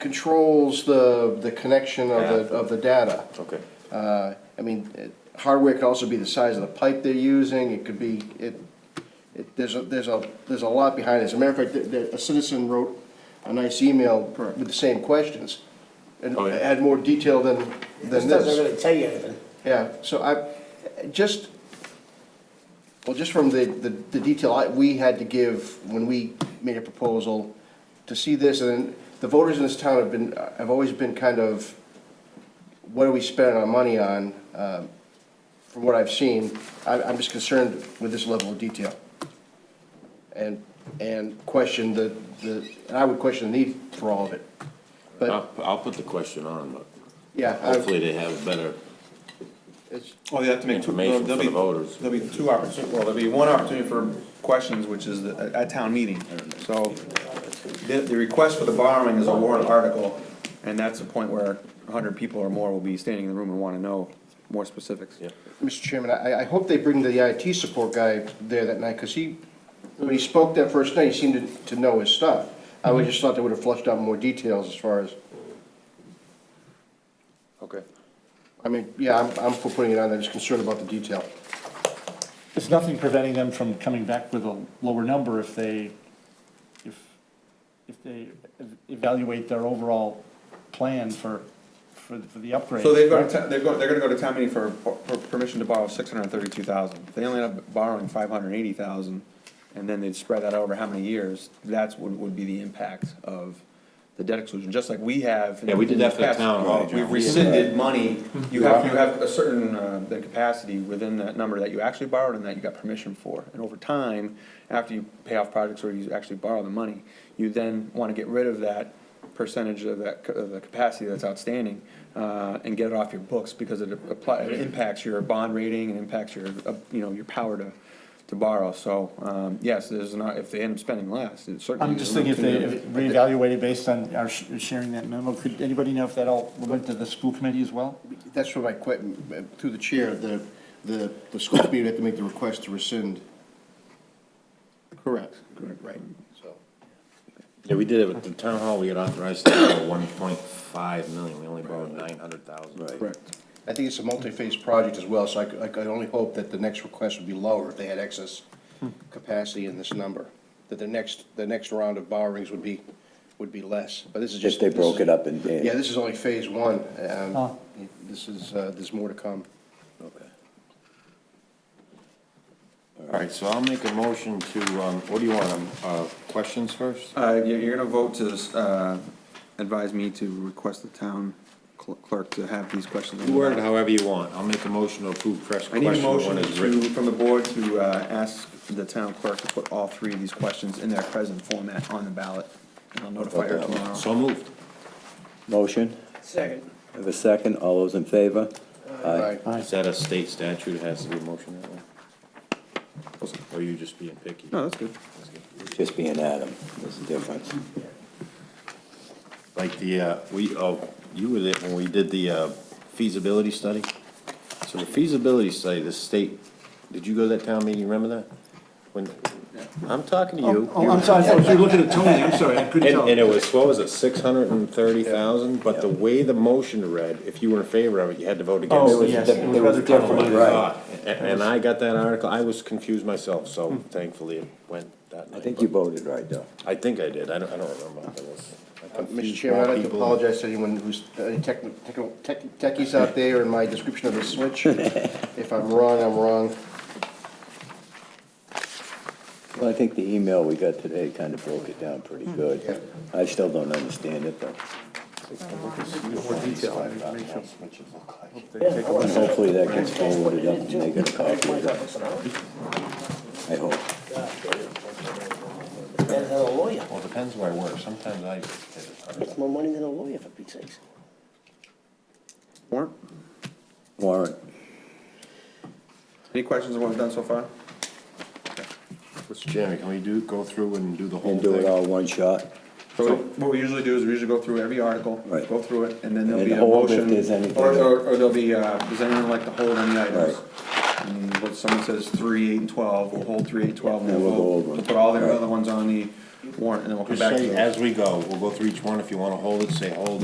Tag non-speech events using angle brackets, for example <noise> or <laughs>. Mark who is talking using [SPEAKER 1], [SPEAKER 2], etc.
[SPEAKER 1] controls the, the connection of the, of the data.
[SPEAKER 2] Okay.
[SPEAKER 1] Uh, I mean, it- hardware could also be the size of the pipe they're using, it could be, it, it, there's a, there's a, there's a lot behind it. As a matter of fact, th- th- a citizen wrote a nice email with the same questions, and
[SPEAKER 2] Oh, yeah.
[SPEAKER 1] had more detail than,
[SPEAKER 3] This
[SPEAKER 1] than this.
[SPEAKER 3] doesn't really tell you anything.
[SPEAKER 1] Yeah, so I, just, well, just from the, the the detail I- we had to give when we made a proposal, to see this, and then the voters in this town have been, have always been kind of, what are we spending our money on? Um, From what I've seen, I, I'm just concerned with this level of detail. And, and question the, the, and I would question the need for all of it. But,
[SPEAKER 2] I'll, I'll put the question on, but
[SPEAKER 1] yeah, I-
[SPEAKER 2] Uh, hopefully they have better,
[SPEAKER 1] it's,
[SPEAKER 4] Well, they have to make two,
[SPEAKER 2] Information
[SPEAKER 4] there'll there'll
[SPEAKER 2] for
[SPEAKER 4] be,
[SPEAKER 2] the voters.
[SPEAKER 4] there'll be two opportunities, well, there'll be one opportunity for questions, which is at, at town meeting. So the, the request for the borrowing is a warrant article, and that's the point where hundred people or more will be standing in the room and wanna know more specifics.
[SPEAKER 2] Yeah.
[SPEAKER 1] Mr. Chairman, I, I hope they bring the IT support guy there that night, because he, when he spoke that first night, he seemed to, to know his stuff. I would just thought they would have flushed out more details as far as,
[SPEAKER 2] Okay.
[SPEAKER 1] I mean, yeah, I'm, I'm for putting it on, there. just concerned about the detail.
[SPEAKER 5] There's nothing preventing them from coming back with a lower number if they, if, if they evaluate their overall plan for, for, for the upgrade.
[SPEAKER 4] So they've got, to- they've got, they're gonna go to town meeting for, for permission to borrow six hundred and thirty-two thousand. If they only end up borrowing five hundred and eighty thousand, and then they'd spread that over how many years, that's what would be the impact of the debt exclusion, just like we have. in-
[SPEAKER 2] Yeah, we did that for the
[SPEAKER 4] in past.
[SPEAKER 2] town hall, John.
[SPEAKER 4] We've rescinded money, you have, you have a certain, uh, the capacity within that number that you actually borrowed and that you got permission for. And over time, after you pay off projects or you actually borrow the money, you then wanna get rid of that percentage of that, ca- of the capacity that's outstanding, uh, and get it off your books, because it apply, it impacts your bond rating, and impacts your, uh, you know, your power to, to borrow, so, um, yes, there's not, if they end up spending less, it certainly.
[SPEAKER 5] I'm
[SPEAKER 4] is
[SPEAKER 5] just
[SPEAKER 4] an
[SPEAKER 5] thinking if they
[SPEAKER 4] opportunity.
[SPEAKER 5] if reevaluated based on our sh- sharing that memo, could anybody know if that all went to the school committee as well?
[SPEAKER 1] That's what I quit, through the chair, the, the, the school committee had to make the request to rescind. Correct. Right, so.
[SPEAKER 2] Yeah, we did it with the town hall, we had authorized to borrow one point five million, we only borrowed nine hundred thousand. Right.
[SPEAKER 1] I think it's a multi-phase project as well, so I, could- I could only hope that the next request would be lower if they had excess capacity in this number. That the next, the next round of borrowings would be, would be less, but this is just.
[SPEAKER 6] If they broke it up in,
[SPEAKER 1] Yeah,
[SPEAKER 6] in-
[SPEAKER 1] this is only phase one, um,
[SPEAKER 5] Oh.
[SPEAKER 1] this is, uh, there's more to come.
[SPEAKER 2] Okay. All right, so I'll make a motion to, um, what do you want, um, uh, questions first?
[SPEAKER 4] Uh, you're, you're gonna vote to, uh, advise me to request the town cl- clerk to have these questions. on the
[SPEAKER 2] Word it
[SPEAKER 4] ballot.
[SPEAKER 2] however you want, I'll make a motion to approve press
[SPEAKER 4] I
[SPEAKER 2] question
[SPEAKER 4] need a
[SPEAKER 2] one
[SPEAKER 4] motion
[SPEAKER 2] is
[SPEAKER 4] to,
[SPEAKER 2] written.
[SPEAKER 4] from the board to, uh, ask the town clerk to put all three of these questions in their present format on the ballot. And I'll notify her tomorrow.
[SPEAKER 2] So moved.
[SPEAKER 6] motion,
[SPEAKER 3] Second.
[SPEAKER 6] have a second, all those in favor?
[SPEAKER 1] Aye.
[SPEAKER 2] Is that a state statute, it has to be a motion that way? Or are you just being picky?
[SPEAKER 4] No, that's good.
[SPEAKER 6] Just being Adam, there's a difference.
[SPEAKER 2] Like the, uh, we, oh, you were there when we did the uh, feasibility study? So the feasibility study, the state, did you go to that town meeting, remember that? When, I'm talking to you.
[SPEAKER 5] Oh, I'm sorry, I thought you were looking at Tony, I'm sorry, I couldn't
[SPEAKER 2] And,
[SPEAKER 5] tell.
[SPEAKER 2] and it was, what was it, six hundred and thirty thousand, but the way the motion read, if you were in favor of it, you had to vote against it.
[SPEAKER 5] Oh, yes, it was rather convoluted.
[SPEAKER 2] Right. And, and I got that article, I was confused myself, so
[SPEAKER 5] Hmm.
[SPEAKER 2] thankfully it went that night.
[SPEAKER 6] I think you
[SPEAKER 2] but-
[SPEAKER 6] voted right, though.
[SPEAKER 2] I think I did, I don't, I don't remember, I was. I
[SPEAKER 1] Mr.
[SPEAKER 2] confused
[SPEAKER 1] Uh, Chairman, I'd like to
[SPEAKER 2] people.
[SPEAKER 1] apologize to anyone who's, uh, any tech, tech- tech- techies out there in my description of the
[SPEAKER 6] <laughs>
[SPEAKER 1] switch. If I'm wrong, I'm wrong.
[SPEAKER 6] Well, I think the email we got today kind of broke it down pretty
[SPEAKER 1] Yeah.
[SPEAKER 6] good. I still don't understand it, though. And hopefully that gets forwarded up and they get a copy of it, I hope.
[SPEAKER 3] Better than a lawyer.
[SPEAKER 2] Well, it depends where I work, sometimes I. did it.
[SPEAKER 3] It's more money than a lawyer, for Pete's sakes.
[SPEAKER 4] Warren,
[SPEAKER 6] Warrant,
[SPEAKER 4] any questions on what we've done so far?
[SPEAKER 2] Mr. Chairman, can we do, go through and do the whole
[SPEAKER 6] and
[SPEAKER 2] thing?
[SPEAKER 6] do it all one shot,
[SPEAKER 4] So what we usually do is we usually go through every article,
[SPEAKER 6] Right.
[SPEAKER 4] go through it, and then there'll
[SPEAKER 6] And
[SPEAKER 4] be a
[SPEAKER 6] hold if
[SPEAKER 4] motion.
[SPEAKER 6] there's anything.
[SPEAKER 4] Or, or, or there'll be, uh, does anyone like to hold any items?
[SPEAKER 6] Right.
[SPEAKER 4] And what someone says three, eight, and twelve, we'll hold three, eight, twelve, and
[SPEAKER 6] And
[SPEAKER 4] we'll
[SPEAKER 6] we'll go
[SPEAKER 4] vote.
[SPEAKER 6] over
[SPEAKER 4] We'll
[SPEAKER 6] them.
[SPEAKER 4] put all their
[SPEAKER 6] Right.
[SPEAKER 4] other ones on the, warrant, and then we'll come
[SPEAKER 2] Just
[SPEAKER 4] back to
[SPEAKER 2] say,
[SPEAKER 4] those.
[SPEAKER 2] as we go, we'll go through each one, if you wanna hold it, say hold